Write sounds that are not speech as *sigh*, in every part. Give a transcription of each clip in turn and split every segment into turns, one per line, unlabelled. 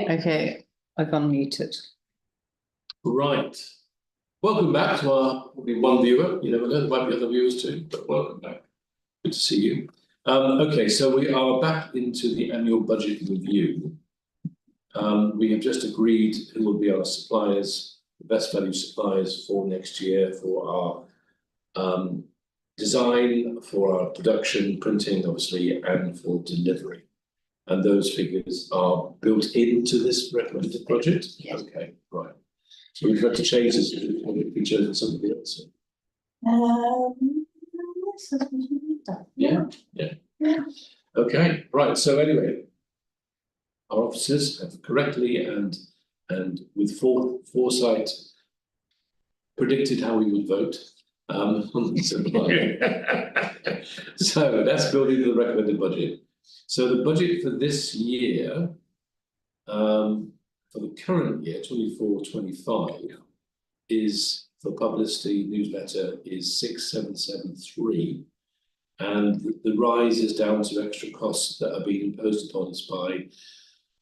Okay, I've unmuted.
Right. Welcome back to our, probably one viewer, you never know, there might be other viewers too, but welcome back. Good to see you. Um, okay, so we are back into the annual budget review. Um, we have just agreed who will be our suppliers, the best value suppliers for next year for our um, design, for our production, printing, obviously, and for delivery. And those figures are built into this recommended budget?
Yes.
Okay, right. So we've got to change this, we've chosen something else.
Um, yes, that's what you need to-
Yeah, yeah.
Yeah.
Okay, right, so anyway. Our officers have correctly and, and with fore- foresight. Predicted how we would vote, um, *laughs* on the supply. So that's building the recommended budget. So the budget for this year. Um, for the current year, 24-25 Is for publicity newsletter is six, seven, seven, three. And the- the rise is down to extra costs that are being imposed upon us by,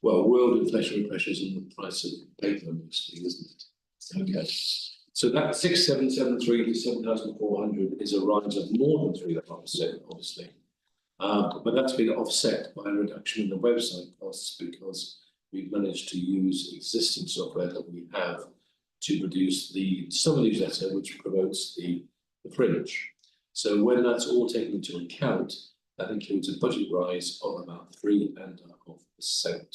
well, world inflationary pressures and the price of paper mostly, isn't it? Okay, so that six, seven, seven, three to seven thousand four hundred is a rise of more than three percent, obviously. Um, but that's been offset by a reduction in the website costs because we've managed to use existing software that we have to produce the summer newsletter, which promotes the, the fringe. So when that's all taken into account, that includes a budget rise of about three and a half percent.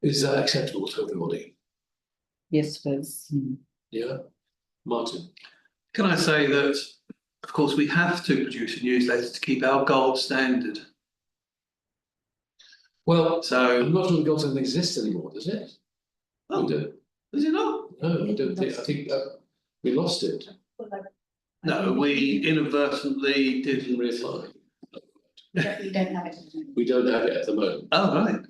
Is that acceptable to everybody?
Yes, please.
Yeah, Martin?
Can I say that, of course, we have to produce a newsletter to keep our gold standard.
Well, I'm
So,
not sure the gold doesn't exist anymore, does it? We
Oh.
do,
is it not?
no, I don't think, I think uh, we lost it,
No, we inadvertently
didn't
did.
reapply.
But we don't have it.
We don't have it at the moment,
Oh, right.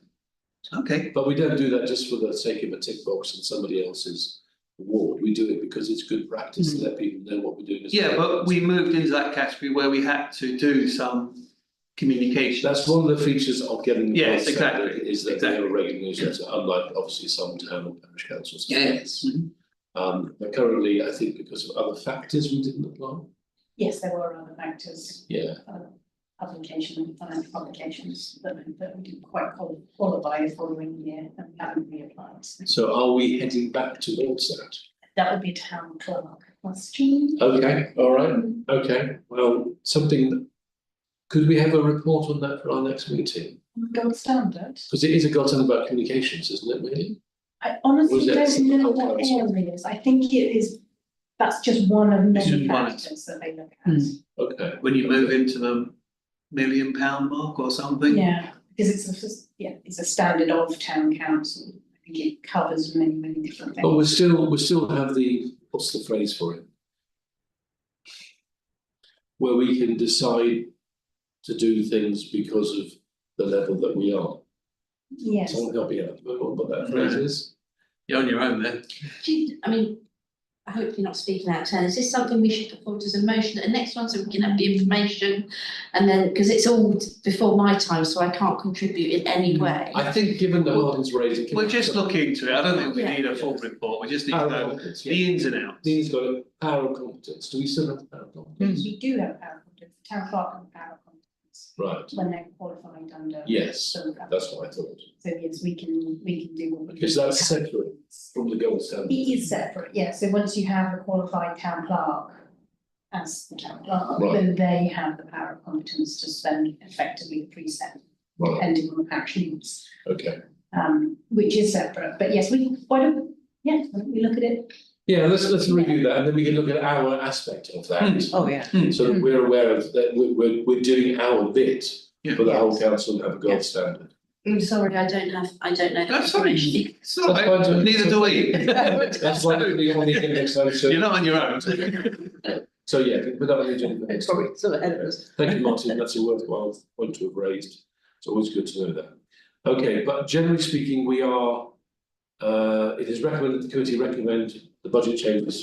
Okay.
but we don't do that just for the sake of a tick box and somebody else's award. We do it because it's good practice to let people know what we're doing. as
Mm-hmm. Yeah,
well.
but we moved into that category where we had to do some communication.
That's one of the features of getting. the
Yes,
grant centre
exactly,
Is that they are a
exactly.
regular newsletter, unlike obviously some town or parish councils.
Yes. Mhm.
Um, but currently, I think because of other factors, we didn't apply.
Yes, there were other factors,
Yeah,
other publication and financial publications that, that we didn't quite qual- qualify the following year and we haven't reapplied. So
so are we heading back towards that?
That would be a town clerk question.
Okay, all right, okay, well, something. Could we have a report on that for our next meeting?
Gold standard.
Because it is a gotten about communications, isn't it, really?
I
Was
honestly
that
don't know
something
what
else?
area is. I think it is, that's just one of
It's
many
just one.
factors that they look at.
Mm.
Okay.
When you move into the million pound mark or something.
Yeah, because it's a, s- yeah, it's a standard of town council. I think it covers many, many different
But
things.
we still, we still have the, what's the phrase for it? Where we can decide to do things because of the level that we are.
Yes.
Someone help me out, what that phrase is?
You're on your own there.
Do you- I mean, I hope you're not speaking out of turn, is this something we should put forward as a motion at the next one, so we can have the information? And then, because it's all before my time, so I can't contribute in any
Hmm.
way.
I think given the Martin's raising.
We're just looking into it. I don't think we
Yeah.
need a full report. We just need to
Power of
know
competence, yeah.
uh, the ins and outs.
Dean's got a power of competence, do we still have power of competence?
We do have power competence, town clerk and power competence,
Right,
when they're qualified under.
yes,
some of that.
that's what I thought,
So yes, we can, we can do what we.
because that's separate from the gold standard.
It is separate, yeah, so once you have a qualified town clerk as the town clerk,
Right.
then they have the power of competence to spend effectively the precept,
Right,
depending on the parish needs.
okay.
um, which is separate, but yes, we, why don't, yeah, why don't we look at it?
Yeah, let's, let's review that, and then we can look at our aspect of that.
Hmm.
Oh, yeah.
So that we're aware of that we're we're we're doing our bit
Yeah.
for the whole council to have a gold standard.
I'm Mm, sorry, I don't have, I don't know.
That's
*laughs*
fine. It's all
That's
right.
fine, Tony.
Neither do we.
That's why we only get next time,
You're
so
not on your own.
so yeah, but that was agenda.
Sorry, it's ahead of us.
Thank you, Martin, that's a worthwhile point to have raised, it's always good to know that. Okay, but generally speaking, we are, uh, it is recommended, the committee recommend the budget changes